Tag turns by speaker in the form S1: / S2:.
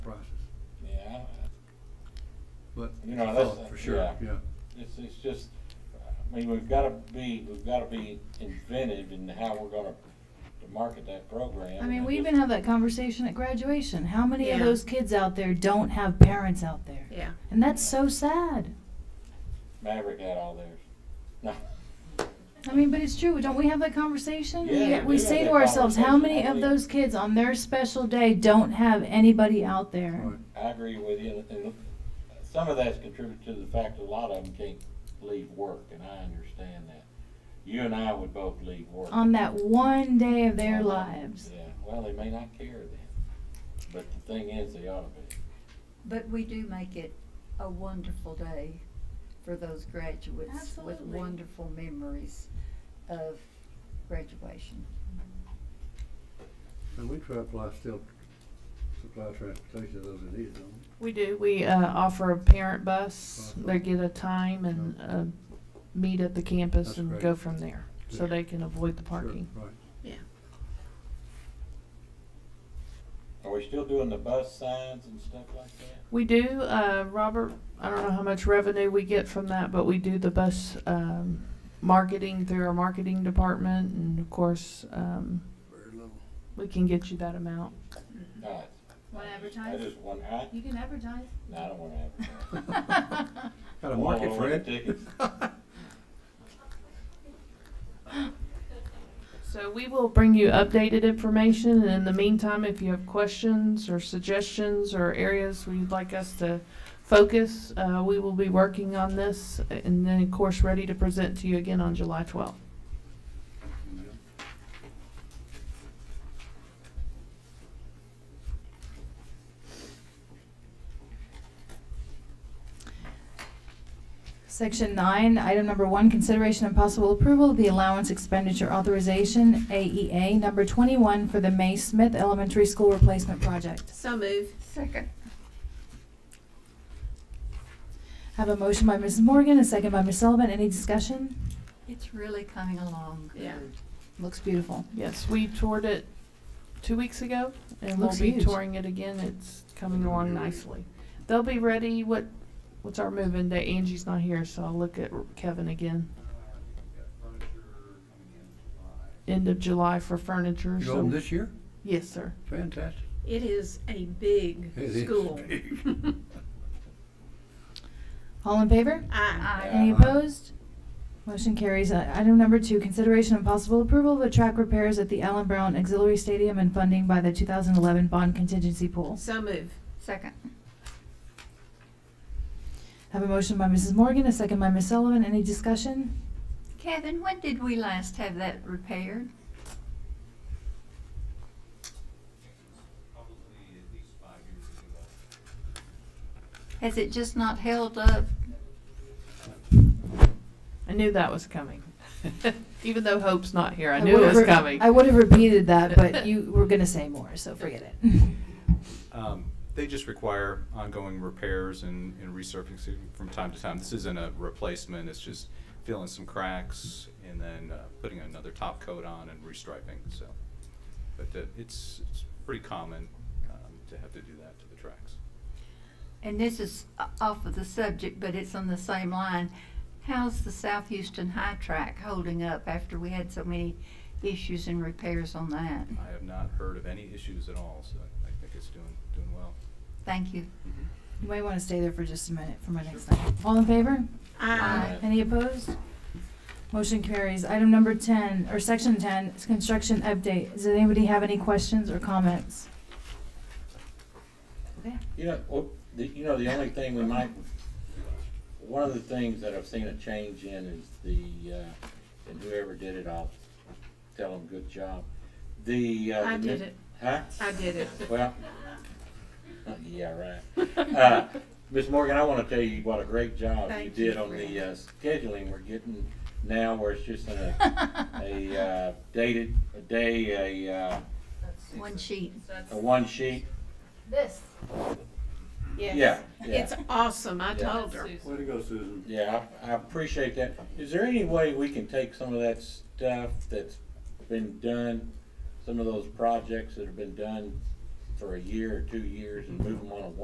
S1: but.
S2: You know, that's-
S1: For sure,
S2: yeah.
S1: yeah.
S2: It's, it's just, I mean, we've gotta be, we've gotta be inventive in how we're gonna to market that program.
S3: I mean, we
S2: have
S3: even have that conversation at graduation. How many of
S4: Yeah.
S3: those kids out there don't have parents out there?
S4: Yeah.
S3: And that's so sad.
S2: Maverick had all theirs. No.
S3: I mean, but it's true. Don't we have that conversation?
S2: Yeah,
S3: Yet we
S2: we
S3: say
S2: have
S3: to
S2: that
S3: ourselves, how
S2: conversation.
S3: many
S2: I
S3: of
S2: believe-
S3: those kids on their special day don't have anybody out there?
S1: Right.
S2: I agree with you, and, and some of that's contributed to the fact that a lot of them can't leave work, and I understand that. You and I would both leave work.
S3: On that one day of their
S2: Um,
S3: lives.
S2: Yeah, well, they may not care then, but the thing is, they ought to be.
S5: But we do make it a wonderful day for those graduates with
S3: Absolutely.
S5: wonderful memories of graduation.
S1: And we try to apply still supply transportation to those that need it, don't we?
S4: We do. We uh, offer a parent bus. They get a time and uh, meet at the campus
S1: That's
S4: and
S1: great.
S4: go from there, so
S1: Yeah.
S4: they can avoid the
S1: Sure,
S4: parking.
S1: Right.
S2: Are we still doing the bus signs and stuff like that?
S4: We do, uh, Robert. I don't know how much revenue we get from that, but we do the bus um, marketing through our marketing department, and of course, um,
S1: Very little.
S4: we can get you that amount.
S2: No, it's-
S3: Want to
S2: I
S3: advertise?
S2: just want, I,
S3: You can advertise.
S2: no, I don't wanna advertise.
S1: Got a
S2: Well,
S1: market
S2: well,
S1: for
S2: the
S1: it.
S2: tickets.
S4: So we will bring you updated information, and in the meantime, if you have questions or suggestions or areas where you'd like us to focus, uh, we will be working on this, and then of course, ready to present to you again on July twelfth.
S3: Section nine, item number one, consideration and possible approval of the allowance expenditure authorization, AEA, number twenty-one for the May Smith Elementary School Replacement Project.
S4: So move.
S5: Second.
S3: Have a motion by Mrs. Morgan, a second by Ms. Sullivan. Any discussion?
S5: It's really coming along
S4: Yeah.
S5: good.
S3: Looks beautiful.
S4: Yes, we toured it two weeks ago, and we'll
S3: Looks
S4: be
S3: huge.
S4: touring it again. It's coming along nicely. They'll be ready, what, what's our move-in date? Angie's not here, so I'll look at Kevin again. End of July for furniture,
S1: You
S4: so-
S1: open this year?
S4: Yes, sir.
S1: Fantastic.
S6: It is a big
S1: It is
S6: school.
S1: big.
S3: All in favor?
S6: I,
S3: Any
S1: Aye.
S3: opposed? Motion carries. Uh, Item number two, consideration and possible approval of the track repairs at the Allen Brown Auxiliary Stadium and funding by the two thousand eleven bond contingency pool.
S6: so move.
S5: Second.
S3: Have a motion by Mrs. Morgan, a second by Ms. Sullivan. Any discussion?
S5: Kevin, when did we last have that repaired?
S7: probably at least five years ago.
S5: Has it just not held up?
S4: I knew that was coming. Even though Hope's not here, I
S3: I
S4: knew it
S3: would've
S4: was
S3: re-
S4: coming.
S3: I would have repeated that, but you were gonna say more, so forget it.
S7: Um, They just require ongoing repairs and, and resurfacing from time to time. This isn't a replacement, it's just filling some cracks and then uh, putting another top coat on and restriping, so. But uh, it's, it's pretty common um, to have to do that to the tracks.
S5: And this is o- off of the subject, but it's on the same line. How's the South Houston High Track holding up after we had so many issues and repairs on that?
S7: I have not heard of any issues at all, so I think it's doing, doing well.
S5: Thank you.
S3: You might wanna stay there for just a minute for my next item. All in favor?
S6: I,
S3: Any opposed? Motion carries. Item number ten, or section ten, is construction update. Does anybody have any questions or comments? Okay.
S2: You know, well, the, you know, the only thing we might, one of the things that I've seen a change in is the, uh, and whoever did it, I'll tell them good job. The, uh.
S6: I
S2: the new-
S6: did it.
S2: Huh?
S6: I did it.
S2: Well, yeah, right. Uh, Ms. Morgan, I wanna tell you what a great job you
S6: Thank you,
S2: did on the, uh, scheduling we're getting now where it's just in a, a, uh, dated, a day, a, uh,
S5: One sheet.
S2: a one sheet.
S3: This.
S2: Yeah,
S6: Yes.
S2: yeah.
S6: It's awesome. I
S2: Yeah.
S6: told her.
S1: Way to go, Susan.
S2: Yeah, I, I appreciate that. Is there any way we can take some of that stuff that's been done, some of those projects that have been done for a year or two years and move them on